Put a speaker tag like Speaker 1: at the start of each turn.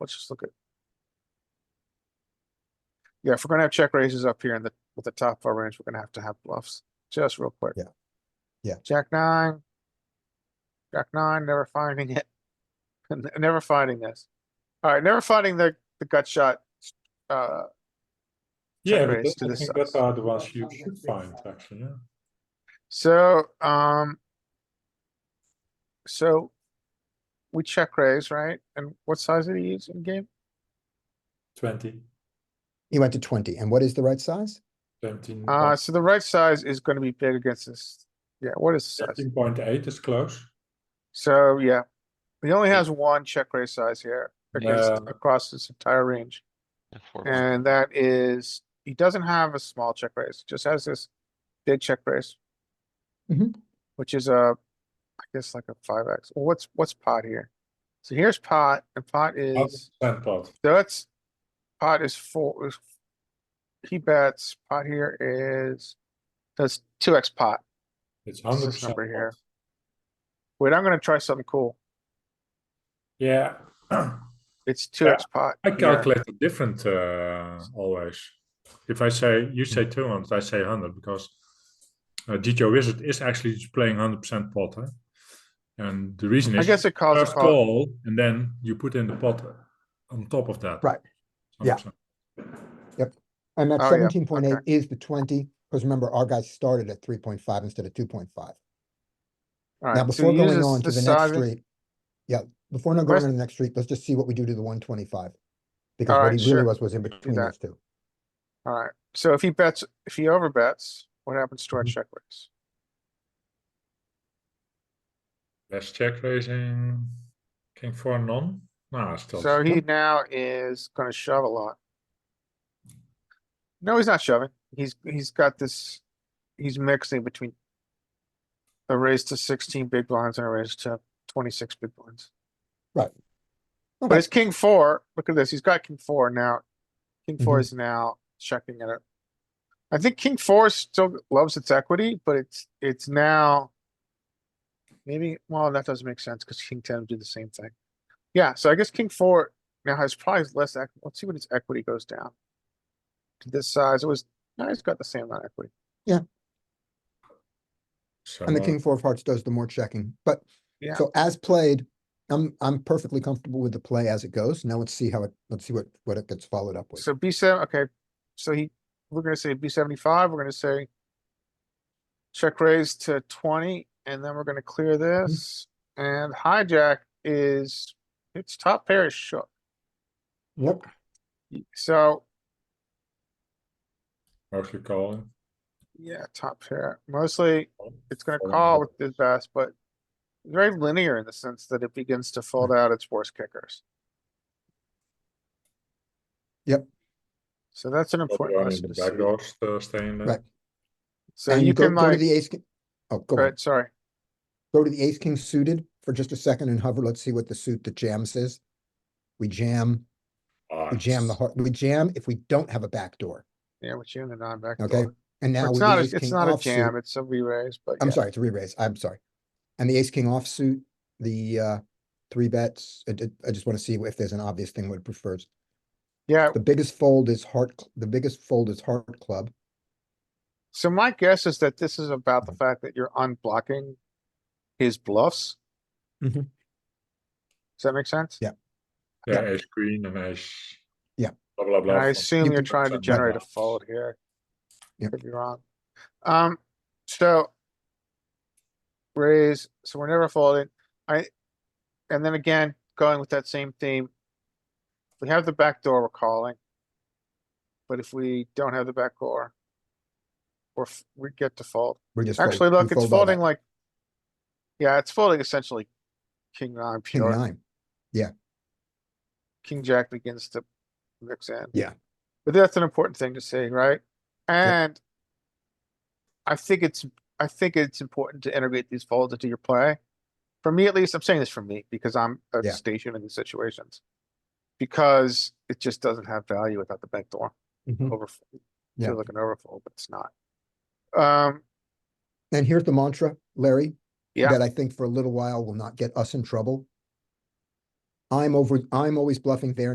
Speaker 1: Let's just look at. Yeah, if we're gonna have check raises up here in the, with the top of our range, we're gonna have to have bluffs, just real quick.
Speaker 2: Yeah. Yeah.
Speaker 1: Jack nine. Jack nine, never finding it. N- Never finding this. Alright, never finding the, the gut shot. Uh,
Speaker 3: Yeah,
Speaker 1: Check
Speaker 3: but
Speaker 1: raise to
Speaker 3: that- I
Speaker 1: the
Speaker 3: think that
Speaker 1: size.
Speaker 3: are the ones you should find, actually, yeah.
Speaker 1: so, um. So. We check raise, right? And what size did he use in game?
Speaker 3: Twenty,
Speaker 2: He went to twenty, and what is the right size?
Speaker 3: seventeen,
Speaker 1: Uh, so the right size is gonna be big against this. Yeah, what is the size?
Speaker 3: seventeen point eight is close.
Speaker 1: So, yeah, he only has one check raise size here against,
Speaker 3: Yeah.
Speaker 1: across his entire range.
Speaker 4: And four was-
Speaker 1: And that is, he doesn't have a small check raise, just has this big check raise.
Speaker 2: Mhm.
Speaker 1: Which is a, I guess like a five X. What's, what's pot here? So here's pot and pot is,
Speaker 3: Ten pot,
Speaker 1: so that's, pot is four. is- He bets, pot here is, that's two X pot.
Speaker 3: it's
Speaker 1: is
Speaker 3: hundred
Speaker 1: this
Speaker 3: percent.
Speaker 1: number here? Wait, I'm gonna try something cool.
Speaker 3: Yeah,
Speaker 1: It's two X pot.
Speaker 3: I
Speaker 1: Yeah.
Speaker 3: calculate it different, uh, always. If I say, you say two hundred, I say hundred, because uh, GTO wizard is actually just playing hundred percent pot, huh? And the reason
Speaker 1: I
Speaker 3: is,
Speaker 1: guess it calls a
Speaker 3: first
Speaker 1: pot.
Speaker 3: call, and then you put in the pot on top of that.
Speaker 2: Right. Yeah.
Speaker 3: 100%.
Speaker 2: And that
Speaker 1: Oh, yeah.
Speaker 2: seventeen point eight
Speaker 1: Okay.
Speaker 2: is the twenty, because remember, our guy started at three point five instead of two point five.
Speaker 1: Alright,
Speaker 2: Now,
Speaker 1: so
Speaker 2: before
Speaker 1: he
Speaker 2: going
Speaker 1: uses
Speaker 2: on to
Speaker 1: the
Speaker 2: the
Speaker 1: size
Speaker 2: next
Speaker 1: of-
Speaker 2: street. Yeah, before not going
Speaker 1: Rest-
Speaker 2: on to the next street, let's just see what we do to the one twenty-five. Because
Speaker 1: Alright,
Speaker 2: what he really
Speaker 1: sure.
Speaker 2: was, was in between
Speaker 1: that.
Speaker 2: those two.
Speaker 1: Alright, so if he bets, if he overbets, what happens to our
Speaker 2: Mhm.
Speaker 1: check raise?
Speaker 3: Less check raising, king four none. Nah, it's still.
Speaker 1: So he now is gonna shove a lot. No, he's not shoving. He's, he's got this, he's mixing between a raise to sixteen big blinds and a raise to twenty-six big blinds. But
Speaker 2: Okay,
Speaker 1: it's king four. Look at this. He's got king four now. King four
Speaker 2: Mhm.
Speaker 1: is now checking it. I think king four still loves its equity, but it's, it's now. Maybe, well, that doesn't make sense because king ten would do the same thing. Yeah, so I guess king four now has probably less, equ- let's see when its equity goes down. To This size, it was, now it's got the same amount of equity.
Speaker 3: So,
Speaker 2: and the
Speaker 3: uh,
Speaker 2: king four of hearts does the more checking, but,
Speaker 1: Yeah.
Speaker 2: so as played, I'm, I'm perfectly comfortable with the play as it goes. Now let's see how it, let's see what, what it gets followed up with.
Speaker 1: So B seven, okay, so he, we're gonna say B seventy-five, we're gonna say. Check raise to twenty, and then we're gonna clear this, and hijack is, its top pair is shook,
Speaker 2: Yep.
Speaker 1: Y- so,
Speaker 3: Mostly calling.
Speaker 1: yeah, top pair, mostly, it's gonna
Speaker 3: Folding
Speaker 1: call
Speaker 3: big.
Speaker 1: with the best, but. Very linear in the sense that it begins to
Speaker 2: Hmm.
Speaker 1: fold out its worst kickers.
Speaker 2: Yep.
Speaker 1: So that's an
Speaker 3: Probably
Speaker 1: important
Speaker 3: only
Speaker 1: lesson
Speaker 3: the
Speaker 1: to
Speaker 3: back
Speaker 1: see,
Speaker 3: doors, uh, staying there.
Speaker 2: Right.
Speaker 1: so
Speaker 2: And
Speaker 1: you
Speaker 2: go,
Speaker 1: can
Speaker 2: go to
Speaker 1: like,
Speaker 2: the ace, ki- oh, go,
Speaker 1: go
Speaker 2: on.
Speaker 1: ahead, sorry.
Speaker 2: go to the ace king suited for just a second and hover. Let's see what the suit that jams is. We jam,
Speaker 3: Ah,
Speaker 2: we jam the heart, we jam if we don't have a backdoor.
Speaker 1: Yeah, with you and the non-back
Speaker 2: Okay,
Speaker 1: door.
Speaker 2: And now
Speaker 1: It's
Speaker 2: with
Speaker 1: not,
Speaker 2: the
Speaker 1: a-
Speaker 2: ace
Speaker 1: it's
Speaker 2: king
Speaker 1: not a
Speaker 2: offsuit,
Speaker 1: jam, it's a re-raise, but
Speaker 2: I'm
Speaker 1: yeah.
Speaker 2: sorry, it's a re-raise, I'm sorry. And the ace king offsuit, the uh, three bets, I, I- I just wanna see if there's an obvious thing what it prefers.
Speaker 1: Yeah,
Speaker 2: The biggest fold is heart, cl- the biggest fold is heart club.
Speaker 1: so my guess is that this is about the fact that you're unblocking his bluffs. Does
Speaker 2: Mhm.
Speaker 1: that make sense?
Speaker 2: Yeah.
Speaker 3: Yeah, ace queen and ace.
Speaker 2: Yeah.
Speaker 3: Blah, blah,
Speaker 1: And
Speaker 3: blah.
Speaker 1: I
Speaker 3: from
Speaker 1: assume you're trying to
Speaker 3: 50%
Speaker 1: generate a
Speaker 3: bluffs.
Speaker 1: fold here.
Speaker 2: Yep.
Speaker 1: Could be wrong. Um, so. Raise, so we're never folding. I, and then again, going with that same theme. If We have the back door we're calling. But if we don't have the back door. We're, f- we get to fold.
Speaker 2: We're just. fold-
Speaker 1: Actually,
Speaker 2: we
Speaker 1: look, it's
Speaker 2: fold all
Speaker 1: folding
Speaker 2: that.
Speaker 1: like. Yeah, it's folding essentially. King nine
Speaker 2: King
Speaker 1: pure,
Speaker 2: nine,
Speaker 1: king jack begins to mix in.
Speaker 2: Yeah.
Speaker 1: But that's an important thing to see, right? And. I think it's, I think it's important to integrate these folds into your play. For me, at least, I'm saying this for me because I'm a
Speaker 2: Yeah.
Speaker 1: station in these situations. Because it just doesn't have value without the back door
Speaker 2: Mhm.
Speaker 1: over.
Speaker 2: Yeah.
Speaker 1: Feels like an overfold, but it's not. Um,
Speaker 2: And here's the mantra, Larry,
Speaker 1: yeah,
Speaker 2: that I think for a little while will not get us in trouble. I'm over, I'm always bluffing there